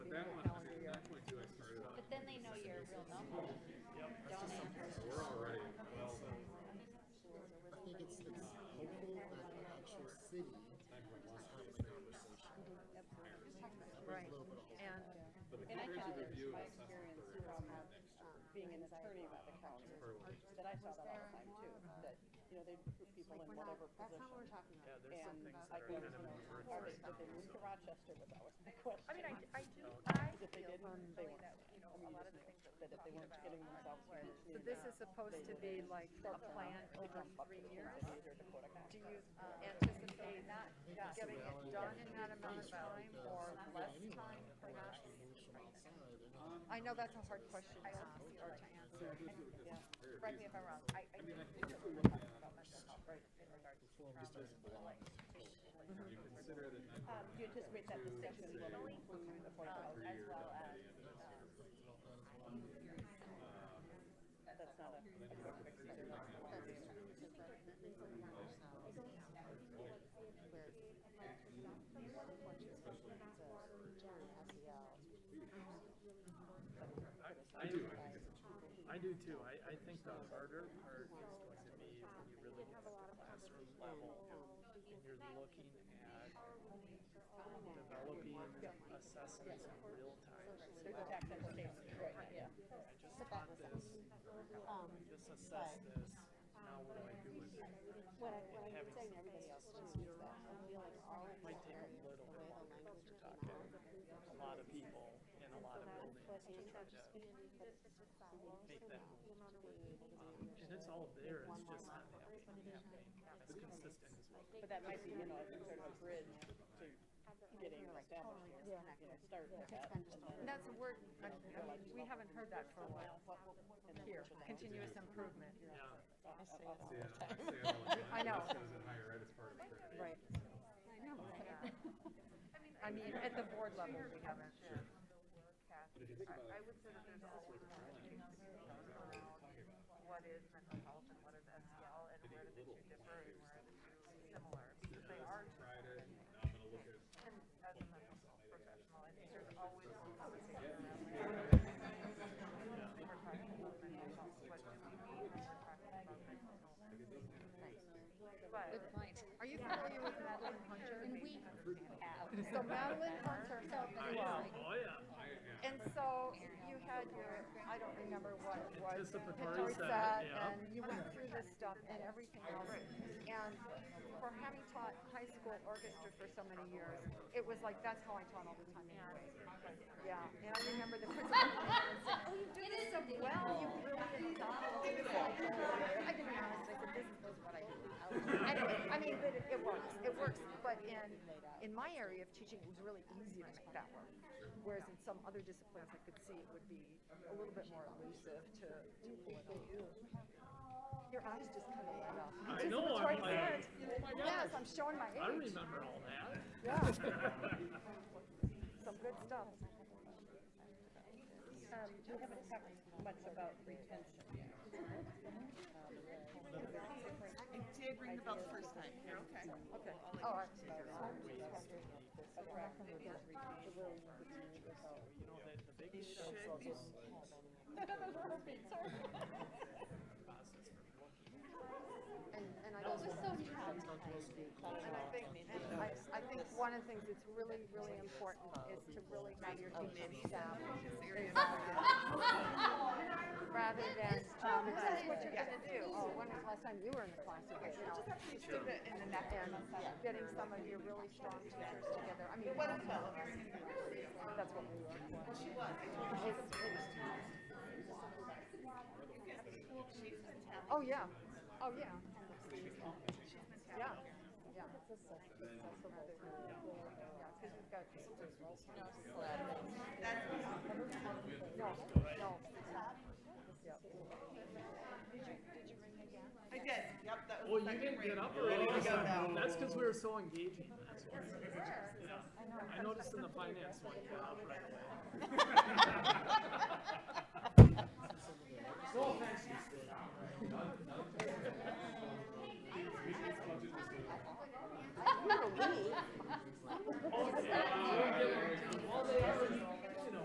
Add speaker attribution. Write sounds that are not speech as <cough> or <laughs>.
Speaker 1: But
Speaker 2: And I
Speaker 1: compared to
Speaker 2: found
Speaker 1: the
Speaker 2: it,
Speaker 1: view of
Speaker 2: my
Speaker 1: assessment
Speaker 2: experience
Speaker 1: for
Speaker 2: from
Speaker 1: assessment next year,
Speaker 2: being an attorney about the county, that I saw that all the time too, that, you know, they put people in whatever position.
Speaker 3: Yeah, there's some
Speaker 2: And
Speaker 3: things
Speaker 2: I
Speaker 3: that are
Speaker 2: go
Speaker 3: kind of
Speaker 2: from
Speaker 3: reversed
Speaker 2: Harvard,
Speaker 3: right
Speaker 2: but they
Speaker 3: now,
Speaker 2: moved
Speaker 3: so.
Speaker 2: to Rochester was always the question.
Speaker 4: I mean, I, d- I do, I
Speaker 2: Because if they
Speaker 4: feel
Speaker 2: didn't, they
Speaker 4: personally
Speaker 2: weren't.
Speaker 4: that, you know,
Speaker 2: I mean,
Speaker 4: a
Speaker 2: you
Speaker 4: lot of
Speaker 2: just
Speaker 4: the
Speaker 2: know That if
Speaker 4: things that we
Speaker 2: they
Speaker 4: talked
Speaker 2: weren't
Speaker 4: about
Speaker 2: getting themselves
Speaker 4: were-
Speaker 2: in the
Speaker 5: So
Speaker 2: community
Speaker 5: this
Speaker 2: now,
Speaker 5: is supposed to be like a plan over
Speaker 2: jump up to
Speaker 5: three
Speaker 2: the
Speaker 5: years?
Speaker 2: community leader to put a
Speaker 5: Do
Speaker 2: contract.
Speaker 5: you uh, anticipate getting it done in that amount of time or less time perhaps? I know that's a hard question to ask or to answer.
Speaker 4: correct me if I'm wrong, I, I do think that we're talking about mental health in regards to trauma and like patient, like,
Speaker 1: you consider it a nine
Speaker 2: Um, do you anticipate that distinction will include the uh, forty
Speaker 4: um,
Speaker 2: thousand?
Speaker 4: as well as,
Speaker 2: That's not a. a direct fix, they're not gonna want to do that.
Speaker 3: I do, I think it's, I do too, I, I think the harder part is going to be when you really get to the classroom level and you're looking at developing assessments in real time.
Speaker 2: There's a tax implication, right, yeah.
Speaker 3: I just taught this, I just assessed this, now what do I do with it?
Speaker 6: um, What I, what I'm saying, everybody else just is that I feel like all of
Speaker 3: Might
Speaker 6: us
Speaker 3: take
Speaker 6: are
Speaker 3: a little bit
Speaker 6: the
Speaker 3: longer,
Speaker 6: language
Speaker 3: you're
Speaker 6: is
Speaker 3: talking a lot of people and a lot of buildings to try to,
Speaker 6: make
Speaker 3: that um, and it's all there, it's just not happening, happening as consistent as well.
Speaker 2: But that might be, you know, if you sort of a bridge to getting established here, you know, start with that. and then-
Speaker 5: That's a word, I I mean, we haven't heard that for a while. Here, continuous improvement. I say it all the time. <laughs> I know. Right. I know. I mean, at the board level, we haven't.
Speaker 1: But if you think about it,
Speaker 4: I would say that there's always a lot of things around what is mental health and what is SEL and where do the two differ and where are the two similar, because they are two
Speaker 1: Friday, now I'm gonna look at
Speaker 4: And as a mental health professional, I think there's always a conversation around like, when we're talking about mental health, what do we mean when we're talking about mental health? But
Speaker 5: Good point. Are you familiar with Madeline Hunter?
Speaker 7: And we have.
Speaker 5: So Madeline Hunter, so you are.
Speaker 3: Oh, yeah.
Speaker 5: And so you had your, I don't remember what it was,
Speaker 3: Anticipatory
Speaker 5: Pittori
Speaker 3: set,
Speaker 5: set,
Speaker 3: yeah.
Speaker 5: and you went through this stuff and everything else. And for having taught high school orchestra for so many years, it was like, that's how I taught all the time anyway. Yeah, and I remember the <laughs> principal said, oh, you do this so well, you really excel. It's like, I didn't know, I said, this is what I do. Anyway, I mean, but it- it works, it works, but in, in my area of teaching, it was really easy to make that work. Whereas in some other disciplines, I could see it would be a little bit more elusive to, to pull it off. Your eyes just kind of light up.
Speaker 3: I know, I'm
Speaker 5: Troy
Speaker 3: like-
Speaker 5: said, Yes, I'm showing my
Speaker 3: I
Speaker 5: age,
Speaker 3: remember all that.
Speaker 5: yeah. Some good stuff.
Speaker 2: Um, we haven't talked much about retention yet.
Speaker 8: It did ring the bell the first time. You're okay.
Speaker 5: Okay, Oh, all right.
Speaker 3: You know, the, the big
Speaker 8: Should be.
Speaker 3: process for looking at
Speaker 5: And, and I
Speaker 7: It was
Speaker 5: don't,
Speaker 7: so nice.
Speaker 5: and I think, and I, I think one of the things that's really, really important is to really have your teaching
Speaker 8: <laughs>
Speaker 5: staff rather than, um, this is what you're gonna do. Oh, when was the last time you were in the classroom, you know?
Speaker 8: In the next
Speaker 5: And getting some of your really strong teachers together. I mean, that's what we were. Oh, yeah. Oh, yeah. Yeah. Yeah. Yeah, 'cause we've got. No, no.
Speaker 8: I did. Yep, that was.
Speaker 3: Well,
Speaker 8: the
Speaker 3: you
Speaker 8: second
Speaker 3: didn't
Speaker 8: ring.
Speaker 3: get up
Speaker 8: We're
Speaker 3: early.
Speaker 8: Ready to go now.
Speaker 3: That's because we were so engaging. That's why. Yeah. I noticed in the finance one, you got up right away.